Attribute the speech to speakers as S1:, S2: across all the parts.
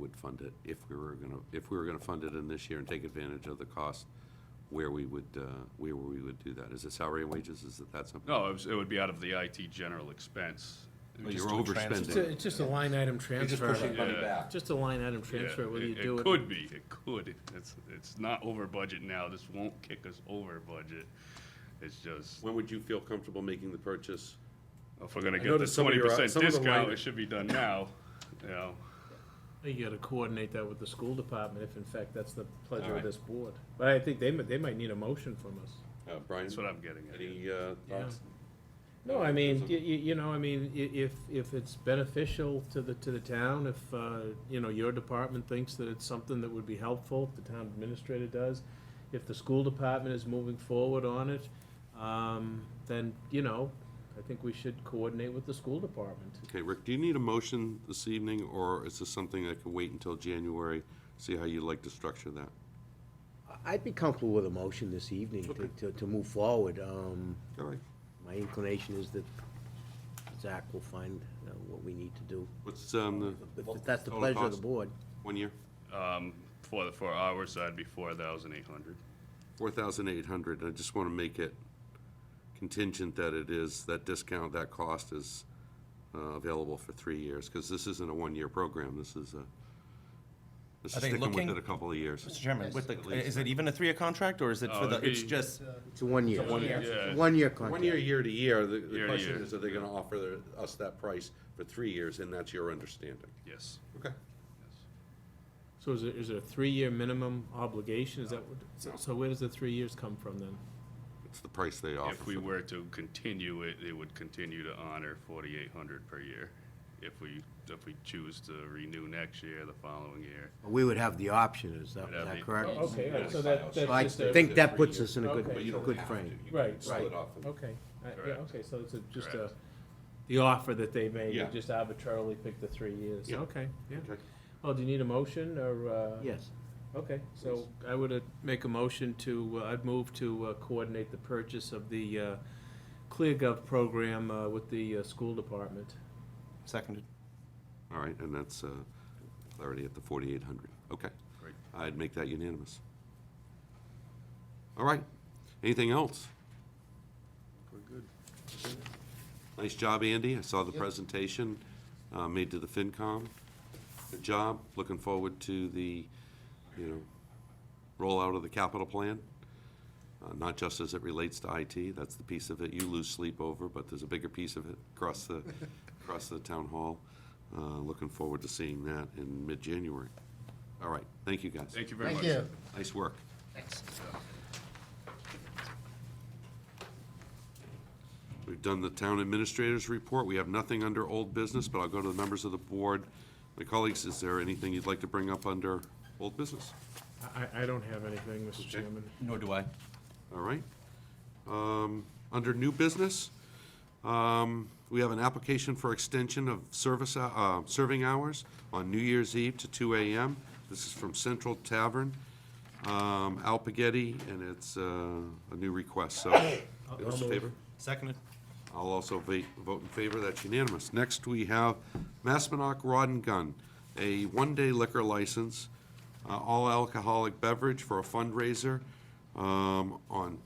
S1: would fund it if we were gonna, if we were gonna fund it in this year and take advantage of the cost, where we would, uh, where we would do that. Is it salary and wages? Is it that something?
S2: No, it was, it would be out of the IT general expense. It would
S1: You're
S2: just-
S3: transfer.
S1: overspending.
S4: It's a- It's just a line item
S3: You're just
S4: transfer.
S3: pushing money
S2: Yeah.
S3: back.
S4: Just a line item
S2: yeah,
S4: transfer, whether you do it.
S2: It could be, it could. It's, it's not over budget now. This won't kick us over budget. It's just,
S1: When would you feel comfortable making the purchase?
S2: if we're gonna get the
S1: noticed some of
S2: twenty
S1: your- uh,
S2: percent
S1: some of the
S2: discount,
S1: line-
S2: it should be done now, you know.
S4: You gotta coordinate that with the school department, if in fact that's the pleasure
S1: Alright.
S4: of this board. But I think they, mi- they might need a motion from us.
S1: Uh, Brian,
S2: That's what I'm getting at.
S1: any uh, thoughts?
S4: No, I mean,
S1: Doesn't-
S4: you, you know, I mean, i- if, if it's beneficial to the, to the town, if, uh, you know, your department thinks that it's something that would be helpful, if the town administrator does, if the school department is moving forward on it, um, then, you know, I think we should coordinate with the school department.
S1: Okay, Rick, do you need a motion this evening, or is this something that can wait until January? See how you'd like to structure that?
S5: I'd be comfortable with a motion this evening to- to, to move forward. Um,
S1: All right.
S5: My inclination is that Zach will find uh, what we need to do.
S1: What's, um, the
S5: If- If that's the
S1: Total
S5: pleasure of the
S1: cost?
S5: board.
S1: one year?
S2: Um, for the four hours, that'd be four thousand eight hundred.
S1: Four thousand eight hundred, I just want to make it contingent that it is, that discount, that cost is uh, available for three years, because this isn't a one-year program, this is a, this is
S3: Are they
S1: sticking with
S3: looking-
S1: it a couple of years.
S3: Mr. Chairman, with the, is it even a three-year contract, or is it
S2: No,
S3: for the,
S2: Uh, it'd
S3: it's
S2: be-
S3: just,
S5: It's a one-year.
S2: one year.
S5: It's
S2: Yeah.
S5: a One-year
S1: One
S5: contract.
S1: year, year to year, the-
S2: Year
S1: the
S2: to
S1: question
S2: year.
S1: is, are they going to offer their- us that price for three years, and that's your understanding?
S2: Yes.
S1: Okay.
S4: So is it, is it a three-year minimum obligation? Is that, what- so- so where does the three years come from then?
S1: It's the price they offer.
S2: If we
S1: for-
S2: were to continue it, it would continue to honor forty-eight hundred per year. If we, if we choose to renew next year, the following year.
S5: We would have the option, is that,
S2: We'd have
S5: is that
S2: the-
S5: correct?
S2: Oh,
S4: Okay,
S2: all right,
S4: so
S2: so
S4: that,
S5: So I
S4: that's just a,
S5: think that puts us in a good,
S4: Okay.
S1: But you don't
S5: good
S1: have to.
S5: frame.
S1: You can
S4: Right,
S1: split
S4: right.
S1: off and-
S4: okay, I- yeah,
S2: Correct.
S4: okay, so it's a- just a,
S2: Correct.
S4: the offer that they made, you
S1: Yeah.
S4: just arbitrarily picked the three years,
S1: Yeah.
S4: okay, yeah.
S1: Okay.
S4: Well, do you need a motion, or, uh?
S5: Yes.
S4: Okay, so I would uh, make a motion to, uh, I'd move to uh, coordinate the purchase of the uh, ClearGov program uh, with the uh, school department.
S3: seconded?
S1: All right, and that's uh, already at the 4,800. Okay.
S2: Great.
S1: I'd make that unanimous. All right. Anything else? We're good. Nice job, Andy. I saw the presentation uh, made to the FinCom. Good job. Looking forward to the, you know, rollout of the capital plan. Uh, Not just as it relates to IT, that's the piece of it you lose sleep over, but there's a bigger piece of it across the, across the town hall. Uh, Looking forward to seeing that in mid-January. All right, thank you, guys.
S2: Thank you very much.
S1: Nice work. Thanks. We've done the town administrator's report. We have nothing under old business, but I'll go to the members of the board. My colleagues, is there anything you'd like to bring up under old business?
S4: I- I, I don't have anything, Mr. Chairman.
S3: Nor do I.
S1: All right. Um, Under new business, um, we have an application for extension of service, hou- uh, serving hours on New Year's Eve to 2 AM. This is from Central Tavern, um, Alpagetti, and it's uh, a new request, so. Those in favor?
S3: Seconded.
S1: I'll also va- vote in favor, that's unanimous. Next, we have Maspinock Rod and Gun, a one-day liquor license, uh, all alcoholic beverage for a fundraiser um, on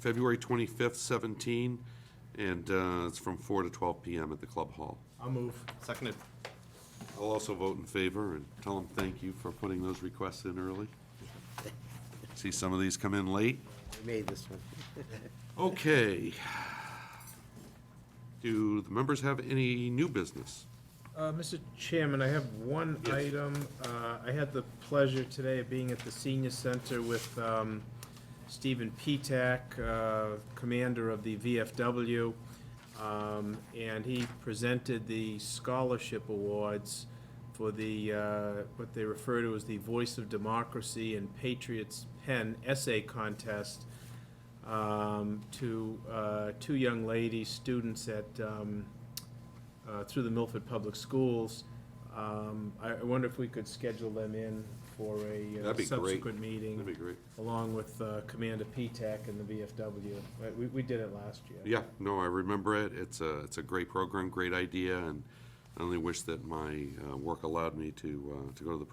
S1: February 25th, 17, and uh, it's from 4 to 12 PM at the Club Hall.
S4: I'll move.
S3: Seconded.
S1: I'll also vote in favor and tell them thank you for putting those requests in early. See some of these come in late.
S5: We made this one.
S1: Okay. Do the members have any new business?
S4: Uh, Mr. Chairman, I have one item. Uh, I had the pleasure today of being at the senior center with um, Stephen Petak, uh, commander of the VFW, um, and he presented the scholarship awards for the, uh, what they refer to as the Voice of Democracy and Patriots Pen Essay Contest um, to uh, two young ladies, students at um, uh, through the Milford Public Schools. Um, I I wonder if we could schedule them in for a uh,
S1: That'd be great.
S4: subsequent meeting.
S1: That'd be great.
S4: Along with uh, Commander P-TAC and the VFW. Right, We, we did it last year.
S1: Yeah, no, I remember it. It's a, it's a great program, great idea, and I only wish that my uh, work allowed me to, uh, to go to the